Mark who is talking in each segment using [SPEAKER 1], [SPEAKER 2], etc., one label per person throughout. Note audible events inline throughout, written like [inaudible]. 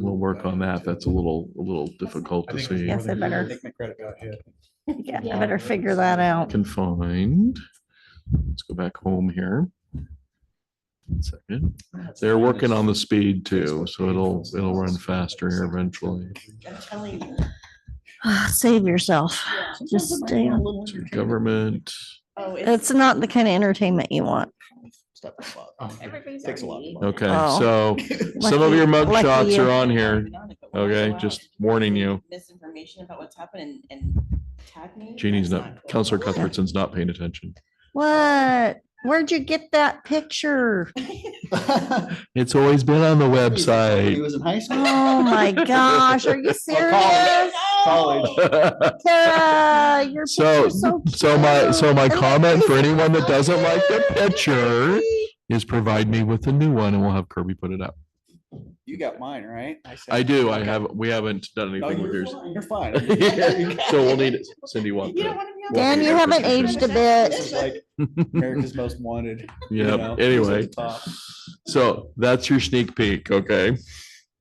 [SPEAKER 1] we'll work on that. That's a little, a little difficult
[SPEAKER 2] I
[SPEAKER 1] to
[SPEAKER 2] think it's
[SPEAKER 1] see.
[SPEAKER 2] more
[SPEAKER 3] Yes, I
[SPEAKER 2] than a year.
[SPEAKER 3] better-
[SPEAKER 2] I think my credit got hit.
[SPEAKER 3] Yeah, I
[SPEAKER 4] Yeah.
[SPEAKER 3] better figure that out. [sighs]
[SPEAKER 1] Confined. Let's go back home here. One Second, they're working on the speed too, so it'll, it'll run faster here eventually.
[SPEAKER 3] Save yourself. Just stay on.
[SPEAKER 1] Government,
[SPEAKER 4] Oh,
[SPEAKER 3] It's not the kind of entertainment you want.
[SPEAKER 2] Takes a lot. of money.
[SPEAKER 1] okay,
[SPEAKER 3] Oh.
[SPEAKER 1] so some of your mug
[SPEAKER 3] Lucky- lucky
[SPEAKER 1] shots
[SPEAKER 3] you.
[SPEAKER 1] are on here. Okay, just warning you.
[SPEAKER 4] Misinformation about what's happened and, and tag me.
[SPEAKER 1] Jeannie's
[SPEAKER 4] That's
[SPEAKER 1] not,
[SPEAKER 4] cool. [laughs]
[SPEAKER 1] Counselor Cuthbertson's not paying attention.
[SPEAKER 3] What? Where'd you get that picture?
[SPEAKER 1] It's always been on the
[SPEAKER 2] He
[SPEAKER 1] website. [laughs]
[SPEAKER 2] was in high school.
[SPEAKER 3] Oh my gosh, are you serious?
[SPEAKER 2] College.
[SPEAKER 3] Tara, your
[SPEAKER 1] So,
[SPEAKER 3] picture's so
[SPEAKER 1] so my, so my
[SPEAKER 3] cute.
[SPEAKER 1] comment for anyone that doesn't like the picture is provide me with a new one and we'll have Kirby put it up.
[SPEAKER 2] You got mine, right? said-
[SPEAKER 1] I do. I
[SPEAKER 2] Okay.
[SPEAKER 1] have, we haven't done
[SPEAKER 2] No,
[SPEAKER 1] anything with
[SPEAKER 2] you're
[SPEAKER 1] yours.
[SPEAKER 2] fine. You're
[SPEAKER 1] [laughs]
[SPEAKER 2] fine.
[SPEAKER 1] So we'll need, it. Cindy want
[SPEAKER 4] You
[SPEAKER 1] [laughs]
[SPEAKER 4] don't
[SPEAKER 1] that.
[SPEAKER 4] want to be on.
[SPEAKER 1] Well,
[SPEAKER 3] Dan,
[SPEAKER 4] the-
[SPEAKER 3] you haven't aged a bit.
[SPEAKER 2] This is like America's Most Wanted. you know,
[SPEAKER 1] Yeah,
[SPEAKER 2] who's at
[SPEAKER 1] anyway,
[SPEAKER 2] the top.
[SPEAKER 1] so that's your sneak peek, okay?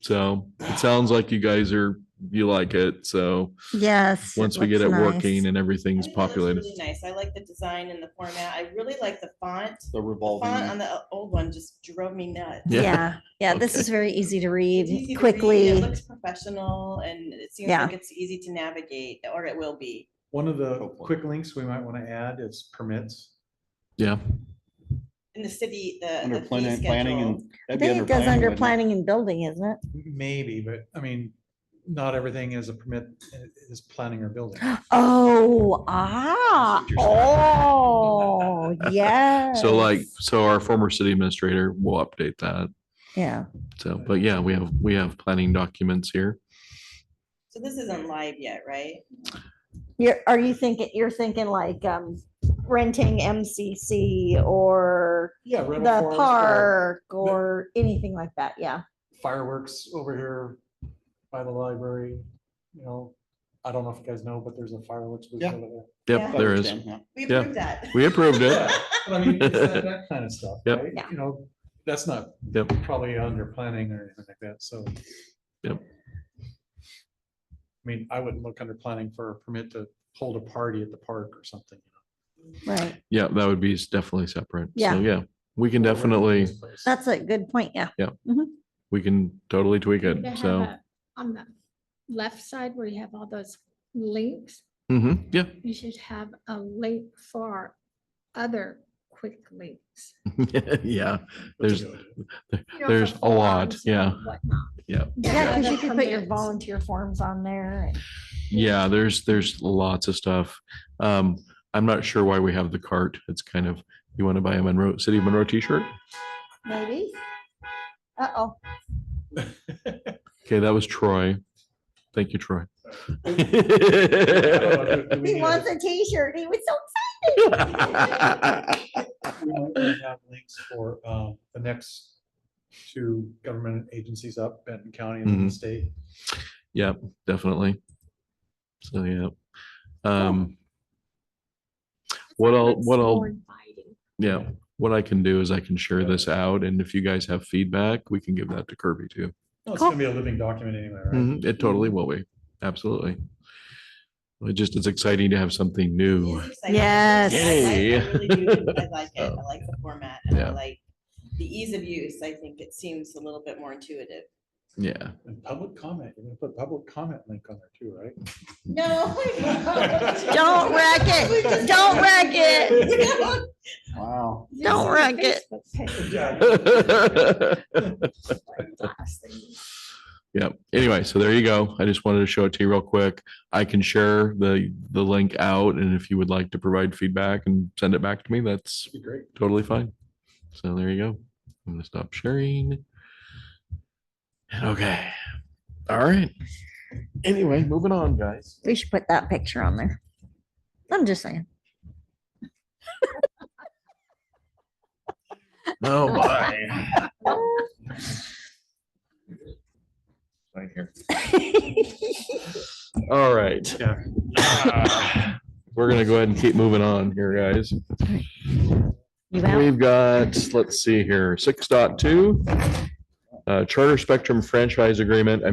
[SPEAKER 1] So it sounds like you guys are, you like it, so
[SPEAKER 3] Yes.
[SPEAKER 1] once we get it
[SPEAKER 3] looks nice.
[SPEAKER 1] working and
[SPEAKER 4] I
[SPEAKER 1] everything's
[SPEAKER 4] think it looks
[SPEAKER 1] populated.
[SPEAKER 4] really Nice. I like the design and the format. I really like the font. The Font
[SPEAKER 2] The
[SPEAKER 4] on
[SPEAKER 2] revolving.
[SPEAKER 4] the uh, old one just drove me nuts.
[SPEAKER 1] Yeah.
[SPEAKER 3] [laughs] Yeah, yeah, this is very
[SPEAKER 4] It's easy
[SPEAKER 3] easy to
[SPEAKER 4] to
[SPEAKER 3] read
[SPEAKER 4] read, It
[SPEAKER 3] quickly.
[SPEAKER 4] looks professional and it seems
[SPEAKER 3] Yeah.
[SPEAKER 4] like it's easy to navigate or it will be.
[SPEAKER 5] One of the
[SPEAKER 2] Hopefully.
[SPEAKER 5] quick links we might want to add is permits.
[SPEAKER 1] Yeah,
[SPEAKER 4] In the city, the.
[SPEAKER 2] Under
[SPEAKER 4] Uh, the fee
[SPEAKER 2] planning, planning
[SPEAKER 4] schedule.
[SPEAKER 2] and.
[SPEAKER 3] I
[SPEAKER 2] that'd be
[SPEAKER 3] think it goes under
[SPEAKER 2] wouldn't it?
[SPEAKER 3] planning and building, isn't it?
[SPEAKER 5] Maybe, but I mean, not everything is a permit, uh, is planning or building.
[SPEAKER 3] Oh, ah,
[SPEAKER 2] what you're
[SPEAKER 3] oh,
[SPEAKER 1] [laughs]
[SPEAKER 3] yeah.
[SPEAKER 1] so like, so our former city administrator will update that.
[SPEAKER 3] Yeah,
[SPEAKER 1] So, but yeah, we have, we have planning documents here.
[SPEAKER 4] So this isn't live yet, right?
[SPEAKER 3] you're, are you thinking, you're thinking like, um, renting MCC or
[SPEAKER 5] Yeah.
[SPEAKER 3] the
[SPEAKER 5] rental farms, uh,
[SPEAKER 3] park or anything like that, yeah.
[SPEAKER 5] Fireworks over here by the library, you know, I don't know if you guys know, but there's a fireworks booth
[SPEAKER 2] Yeah.
[SPEAKER 5] over there.
[SPEAKER 1] Yep,
[SPEAKER 2] But
[SPEAKER 1] there
[SPEAKER 2] it's
[SPEAKER 1] is.
[SPEAKER 2] down, yeah.
[SPEAKER 4] We
[SPEAKER 1] Yeah.
[SPEAKER 4] approved that.
[SPEAKER 1] We approved it.
[SPEAKER 5] But I mean,
[SPEAKER 1] [laughs]
[SPEAKER 5] it's that that kind of stuff,
[SPEAKER 1] Yep.
[SPEAKER 5] right?
[SPEAKER 3] Yeah.
[SPEAKER 5] You know, that's not
[SPEAKER 1] Yep.
[SPEAKER 5] probably under planning or anything like that, so.
[SPEAKER 1] Yep.
[SPEAKER 5] I mean, I wouldn't look under planning for a permit to hold a party at the park or something.
[SPEAKER 3] Right,
[SPEAKER 1] Yeah, that would be s- definitely separate.
[SPEAKER 3] Yeah.
[SPEAKER 1] So yeah, we can definitely,
[SPEAKER 3] that's a good point, yeah.
[SPEAKER 1] we can totally tweak it.
[SPEAKER 6] to have
[SPEAKER 1] So,
[SPEAKER 6] a- On the left side where you have all those links,
[SPEAKER 1] Mhm, yeah. [laughs]
[SPEAKER 6] you should have a link for other quick links.
[SPEAKER 1] Yeah,
[SPEAKER 5] That's a [laughs]
[SPEAKER 1] there's,
[SPEAKER 5] good idea.
[SPEAKER 6] you know, for
[SPEAKER 1] There's a lot,
[SPEAKER 6] forums and
[SPEAKER 1] yeah.
[SPEAKER 6] whatnot.
[SPEAKER 1] Yeah.
[SPEAKER 3] Yeah, because
[SPEAKER 6] the
[SPEAKER 3] you could put your
[SPEAKER 6] permits.
[SPEAKER 3] volunteer forms on there. and-
[SPEAKER 1] yeah, there's, there's lots of stuff. Um, I'm not sure why we have the cart. It's kind of, you want to buy a Monroe, City of Monroe t-shirt?
[SPEAKER 3] Maybe. Uh-oh,
[SPEAKER 1] Okay, that was Troy. Thank you, Troy. [laughs]
[SPEAKER 5] I don't know, do- do we
[SPEAKER 3] he
[SPEAKER 5] need
[SPEAKER 3] wants a t-shirt. He was so
[SPEAKER 5] We might wanna have links for um, the next two government agencies up, Benton County and then the
[SPEAKER 1] Mhm.
[SPEAKER 5] state.
[SPEAKER 1] Yep, definitely. So, yeah. Um, What I'll-
[SPEAKER 6] That's
[SPEAKER 1] what
[SPEAKER 6] more
[SPEAKER 1] I'll-
[SPEAKER 6] inviting.
[SPEAKER 1] yeah, what I can do is I can share this out and if you guys have feedback, we can give that to Kirby too.
[SPEAKER 5] No, It's gonna be a living document anyway, right?
[SPEAKER 1] Mhm, It totally will be. Absolutely. It just is exciting to have something new.
[SPEAKER 4] It is exciting.
[SPEAKER 3] Yes.
[SPEAKER 4] I like- I
[SPEAKER 1] Yay.
[SPEAKER 4] really do. I like
[SPEAKER 1] [laughs]
[SPEAKER 4] it. I like the format and
[SPEAKER 1] Yeah.
[SPEAKER 4] I like the ease of use. I think it seems a little bit more intuitive.
[SPEAKER 1] [laughs] Yeah.
[SPEAKER 5] And public comment, you're gonna put public comment link on there too, right?
[SPEAKER 1] [laughs]
[SPEAKER 4] No.
[SPEAKER 3] Don't wreck
[SPEAKER 4] [laughs]
[SPEAKER 3] it. Don't wreck it.
[SPEAKER 2] Wow.
[SPEAKER 6] This
[SPEAKER 3] Don't
[SPEAKER 6] is a
[SPEAKER 3] wreck it.
[SPEAKER 6] Facebook page. Last thing.
[SPEAKER 1] Yeah. Anyway, so there you go. I just wanted to show it to you real quick. I can share the, the link out and if you would like to provide feedback and send it back to me, that's
[SPEAKER 5] Be great.
[SPEAKER 1] totally fine. So there you go. I'm gonna stop sharing. And okay. All right. Anyway, moving on, guys.
[SPEAKER 3] We should put that picture on there. I'm just [laughs] saying.
[SPEAKER 1] [laughs] Oh, my. Right here. All right. [sighs] We're gonna go ahead and keep moving on here, guys.
[SPEAKER 3] You out?
[SPEAKER 1] We've got, let's see here, six dot two. Uh, Charter Spectrum Franchise Agreement. I